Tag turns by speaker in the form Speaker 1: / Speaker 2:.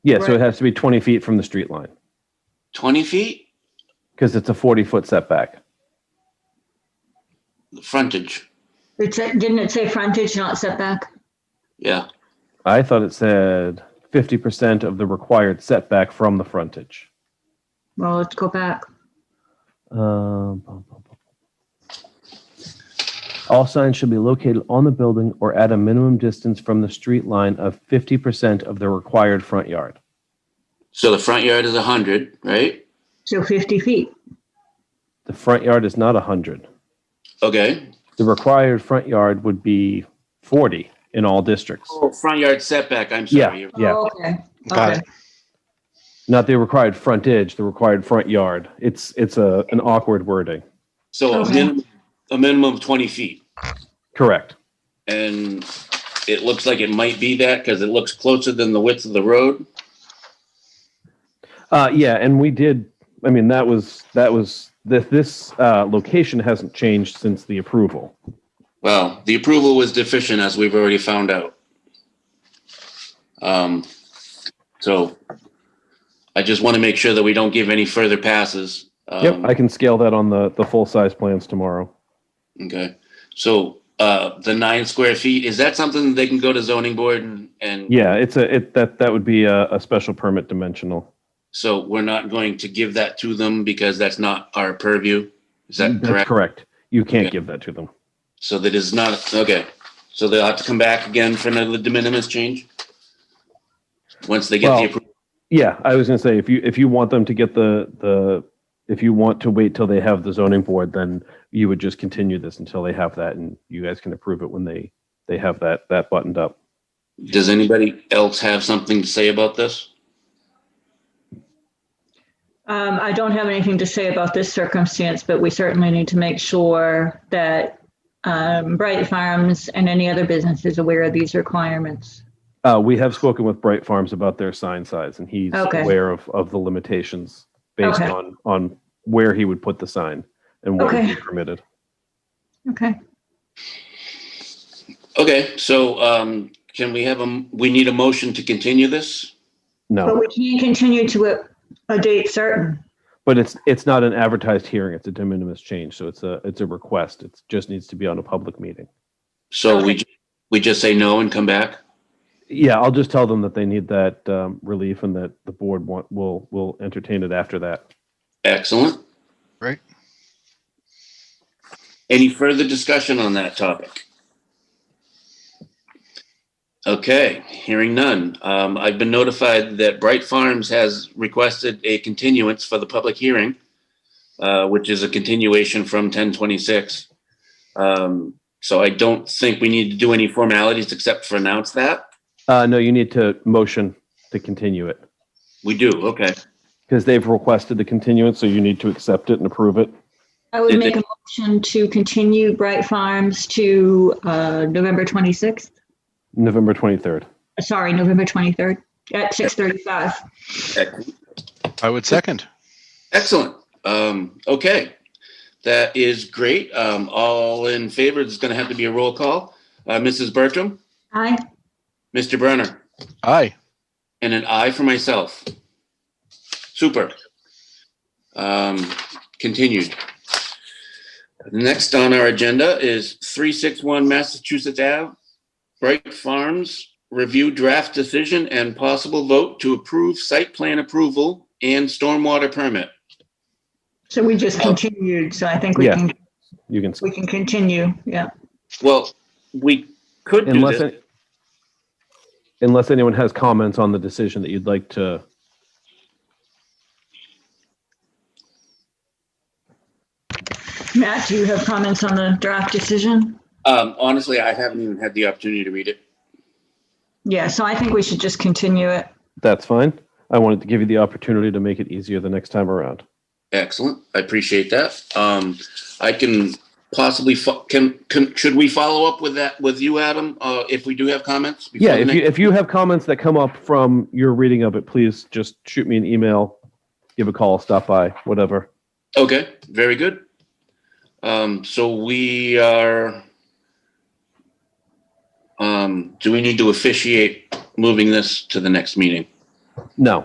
Speaker 1: Yeah, so
Speaker 2: Right.
Speaker 1: it has to be 20 feet from the street line
Speaker 3: 20 feet,
Speaker 1: because it's a 40-foot setback.
Speaker 3: the frontage.
Speaker 2: It said, didn't it say frontage, not setback?
Speaker 3: Yeah.
Speaker 1: I thought it said 50% of the required setback from the frontage.
Speaker 2: Well, let's go back.
Speaker 1: Um, bum, bum, bum. All signs should be located on the building or at a minimum distance from the street line of 50% of the required front yard.
Speaker 3: So the front yard is 100, right?
Speaker 2: So 50 feet.
Speaker 1: The front yard is not 100.
Speaker 3: Okay.
Speaker 1: The required front yard would be 40 in all districts.
Speaker 3: Oh, front yard setback. I'm sorry. You're-
Speaker 1: Yeah.
Speaker 2: Oh, Okay.
Speaker 4: Got it.
Speaker 2: Okay.
Speaker 1: Not the required frontage, the required front yard. It's it's a an awkward wording.
Speaker 3: So a
Speaker 2: Okay.
Speaker 3: minimum, a minimum of 20 feet.
Speaker 1: Correct.
Speaker 3: And it looks like it might be that because it looks closer than the width of the road.
Speaker 1: Uh, yeah, and we did. I mean, that was that was this this uh, location hasn't changed since the approval.
Speaker 3: Well, the approval was deficient as we've already found out. Um, so I just want to make sure that we don't give any further passes.
Speaker 1: Yep,
Speaker 3: Um,
Speaker 1: I can scale that on the the full size plans tomorrow.
Speaker 3: Okay, so, uh, the nine square feet, is that something that they can go to zoning board and, and?
Speaker 1: Yeah, it's a it that that would be a, a special permit dimensional.
Speaker 3: So we're not going to give that to them because that's not our purview? Is that
Speaker 1: That's
Speaker 3: correct?
Speaker 1: You can't
Speaker 3: Yeah.
Speaker 1: give that to them.
Speaker 3: So that is not, okay, so they'll have to come back again for another de minimis change? Once they get
Speaker 1: Well-
Speaker 3: the approval,
Speaker 1: Yeah, I was gonna say if you if you want them to get the the if you want to wait till they have the zoning board, then you would just continue this until they have that, and you guys can approve it when they they have that that buttoned up.
Speaker 3: does anybody else have something to say about this?
Speaker 2: Um, I don't have anything to say about this circumstance, but we certainly need to make sure that um, Bright Farms and any other business is aware of these requirements.
Speaker 1: Uh, we have spoken with Bright Farms about their sign size, and he's
Speaker 2: Okay.
Speaker 1: aware of, of the limitations based
Speaker 2: Okay.
Speaker 1: on on where he would put the sign and what would
Speaker 2: Okay.
Speaker 1: be permitted.
Speaker 2: Okay.
Speaker 3: Okay, so, um, can we have a, m- we need a motion to continue this?
Speaker 2: But
Speaker 1: No,
Speaker 2: we can continue to a, a date certain.
Speaker 1: but it's it's not an advertised hearing; it's a de minimis change, so it's a it's a request. It just needs to be on a public meeting.
Speaker 3: So we, ju- we just say no and come back?
Speaker 1: Yeah, I'll just tell them that they need that um, relief and that the board want will will entertain it after that.
Speaker 3: Excellent.
Speaker 4: Right.
Speaker 3: Any further discussion on that topic? Okay, hearing none. Um, I've been notified that Bright Farms has requested a continuance for the public hearing, uh, which is a continuation from ten twenty-six. Um, so I don't think we need to do any formalities except for announce that.
Speaker 1: Uh, no, you need to motion to continue it
Speaker 3: We do, okay.
Speaker 1: because they've requested the continuance, so you need to accept it and approve it.
Speaker 2: I would
Speaker 3: Did
Speaker 2: make a motion to continue Bright Farms to uh, November 26th.
Speaker 1: November twenty third.
Speaker 2: Sorry, November 23rd at 6:35.
Speaker 4: I would second.
Speaker 3: Excellent. Um, okay. That is great. Um, all in favor, it's going to have to be a roll call. Uh, Mrs. Bertram,
Speaker 2: Aye.
Speaker 3: Mr. Brenner,
Speaker 4: Aye.
Speaker 3: and an aye for myself. Super. Um, continued. Next on our agenda is 361 Massachusetts Ave, Bright Farms, review draft decision and possible vote to approve site plan approval and stormwater permit.
Speaker 2: So we just continued, so I think we
Speaker 1: Yeah.
Speaker 2: can,
Speaker 1: You can
Speaker 2: we can continue, yeah.
Speaker 3: Well, we could do
Speaker 1: Unless
Speaker 3: this.
Speaker 1: it- unless anyone has comments on the decision that you'd like to.
Speaker 2: Matt, do you have comments on the draft decision?
Speaker 3: Um, honestly, I haven't even had the opportunity to read it.
Speaker 2: Yeah, so I think we should just continue it.
Speaker 1: That's fine. I wanted to give you the opportunity to make it easier the next time around.
Speaker 3: Excellent. I appreciate that. Um, I can possibly fo- can, can should we follow up with that with you, Adam? Uh, if we do have comments. before
Speaker 1: Yeah,
Speaker 3: the
Speaker 1: if
Speaker 3: next-
Speaker 1: you if you have comments that come up from your reading of it, please just shoot me an email, give a call, stop by, whatever.
Speaker 3: okay, very good. Um, so we are. Um, do we need to officiate moving this to the next meeting?
Speaker 1: No.